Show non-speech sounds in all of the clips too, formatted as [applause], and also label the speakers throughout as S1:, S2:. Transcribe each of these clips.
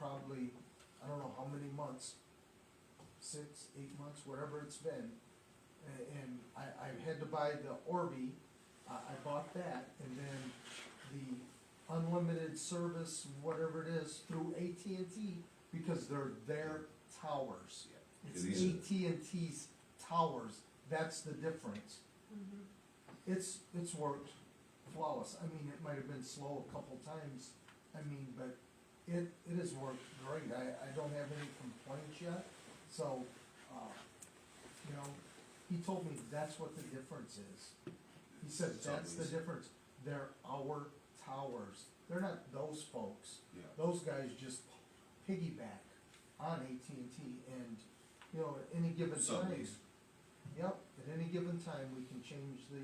S1: probably, I don't know how many months, six, eight months, whatever it's been. And, and I, I had to buy the Orbi, I, I bought that, and then the unlimited service, whatever it is, through AT&T, because they're their towers. It's
S2: It
S1: AT&T's towers, that's the difference. Mm-hmm. It's, it's worked flawless, I mean, it might have been slow a couple times, I mean, but it, it has worked great, I, I don't have any complaints yet, so, uh, you know, he told me that's what the difference is. He said,
S2: It's
S1: that's the
S2: obvious.
S1: difference, they're our towers, they're not those folks.
S2: Yeah.
S1: Those guys just piggyback on AT&T and, you know, at any given time.
S2: Sublease.
S1: Yep, at any given time, we can change the,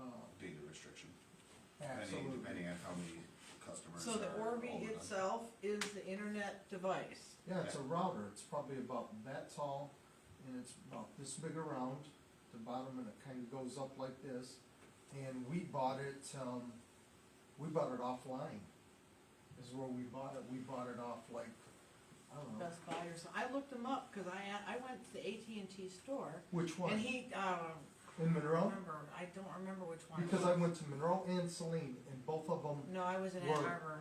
S1: uh,
S2: Data restriction, depending,
S1: absolutely.
S2: depending on how many customers
S3: So the
S2: are
S3: Orbi
S2: all done.
S3: itself is the internet device.
S1: Yeah, it's a router, it's probably about that tall, and it's about this big around, the bottom, and it kinda goes up like this. And we bought it, um, we bought it offline, is where we bought it, we bought it off like, I don't know,
S3: Best Buy or something. I looked them up, cause I, a- I went to the AT&T store,
S1: which one?
S3: and he, uh,
S1: In
S3: I don't
S1: Monroe?
S3: remember, I don't remember which one. it
S1: Because I
S3: was.
S1: went to Monroe and Celine, and both of them,
S3: No, I was in Ann
S1: Were-
S3: Arbor,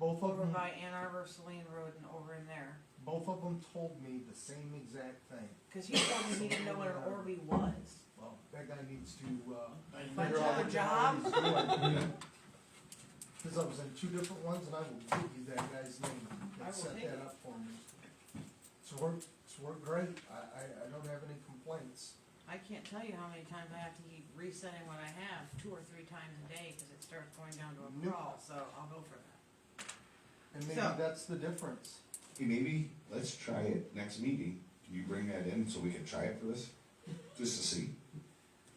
S1: both of
S3: over
S1: them,
S3: by Ann Arbor, Celine Road and over in there.
S1: both of them told me the same exact thing.
S3: Cause he told me he didn't know what an Orbi was.
S1: Well, that guy needs to, uh,
S3: Find
S1: figure out
S3: another
S1: what the hell
S3: job.
S1: he's doing. [laughs] Cause I was in two different ones, and I will give you that guy's name
S3: I will
S1: that set
S3: take
S1: that
S3: it.
S1: up for me. It's worked, it's worked great, I, I, I don't have any complaints.
S3: I can't tell you how many times I have to keep resetting what I have, two or three times a day, cause it starts going down to a
S1: Nope.
S3: crawl, so I'll go for that.
S1: And maybe
S3: So-
S1: that's the difference.
S2: Hey, maybe, let's try it next meeting, can you bring that in so we can try it for this, just to see?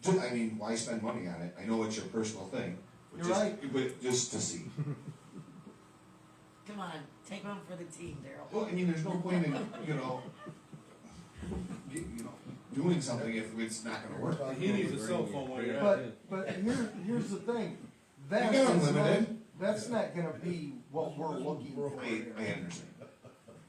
S2: Ju- I mean, why spend money on it, I know it's your personal thing, but
S1: You're
S2: just, but just to see.
S4: Come on, take one for the team, Daryl.
S2: Well, I mean, there's no point in, you know, you you know, doing something if it's not gonna work.
S5: He needs a cell phone while you're at it.
S1: But, but here, here's the thing, that
S2: You got
S1: is not,
S2: unlimited.
S1: that's not gonna be what we're looking for
S2: I, I
S1: here.
S2: understand,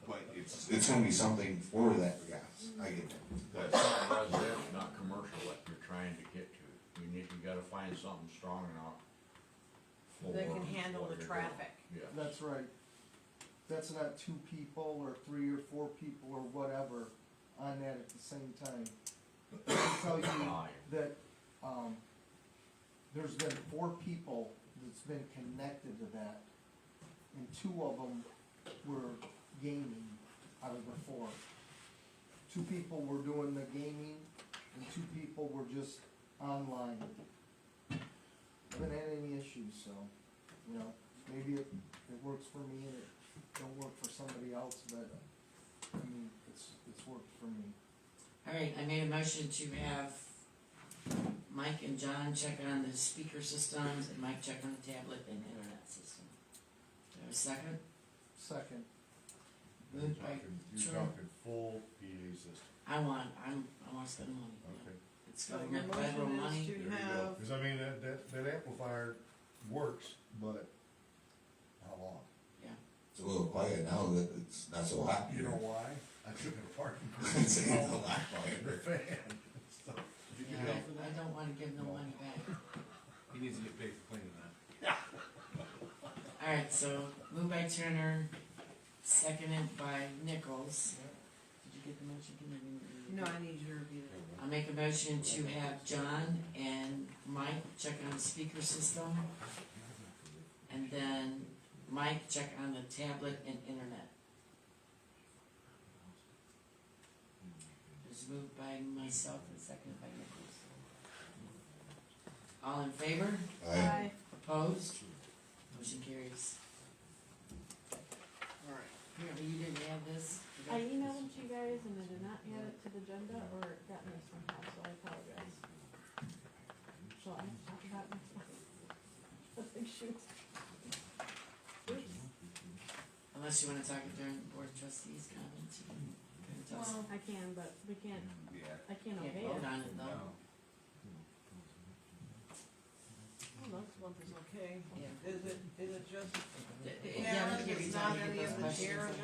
S2: but it's, it's gonna be something for that, yes, I get that.
S6: That's something residential, not commercial, like you're trying to get to. You need, you gotta find something strong enough. for
S3: That can
S6: what
S3: handle the
S6: you're doing.
S3: traffic.
S6: Yeah.
S1: That's right. That's not two people or three or four people or whatever on that at the same time. I can tell you that, um, there's been four people that's been connected to that, and two of them were gaming out of the four. Two people were doing the gaming, and two people were just online. Haven't had any issues, so, you know, maybe it, it works for me and it don't work for somebody else, but, I mean, it's, it's worked for me.
S4: Alright, I made a motion to have Mike and John check on the speaker systems and Mike check on the tablet and internet system. Do I have a second?
S1: Second,
S4: You're talking- you're talking
S6: full PA system,
S4: I want, I'm, I want to spend money. It's
S3: So
S4: going
S3: your
S4: up federal
S3: motion is
S4: money.
S3: to have,
S7: Cause I mean, that, that, that amplifier works, but how long?
S2: It's a little quiet now that it's not so hot.
S7: You know why? I took it [laughs] apart and
S2: [laughs] It's a lot
S7: in the
S2: quieter.
S7: fan. [laughs] So,
S4: Yeah, I, I don't wanna give no money back.
S5: [laughs] He needs to get paid for cleaning that.
S4: [laughs] Alright, so moved by Turner, seconded by Nichols. Did you get the motion? Can I-
S3: no, I need you to review it.
S4: I make a motion to have John and Mike check on the speaker system. And then Mike check on the tablet and internet. It was moved by myself and seconded by Nichols. All in favor?
S2: I-
S4: Opposed? Motion carries. Alright. Apparently you didn't have this.
S8: I emailed it to you guys and I did not add it to the agenda or it got missed somehow, so I apologize. So I have to talk about it next month. [laughs] Nothing shoots. Oops,
S4: Unless you wanna talk it during board trustees comments. you can- you can tell us.
S3: Well,
S8: I can, but we can't,
S2: Yeah.
S8: I can't
S4: Can't
S8: obey
S4: vote
S8: it.
S4: on it though.
S3: Well, that's one is okay.
S4: Yeah.
S3: Is it, is it just
S4: Th-
S3: Yeah,
S4: Yeah,
S3: it's
S4: we give you
S3: not
S4: time to
S3: any
S4: get those
S3: of the
S4: questions
S3: chair
S4: in.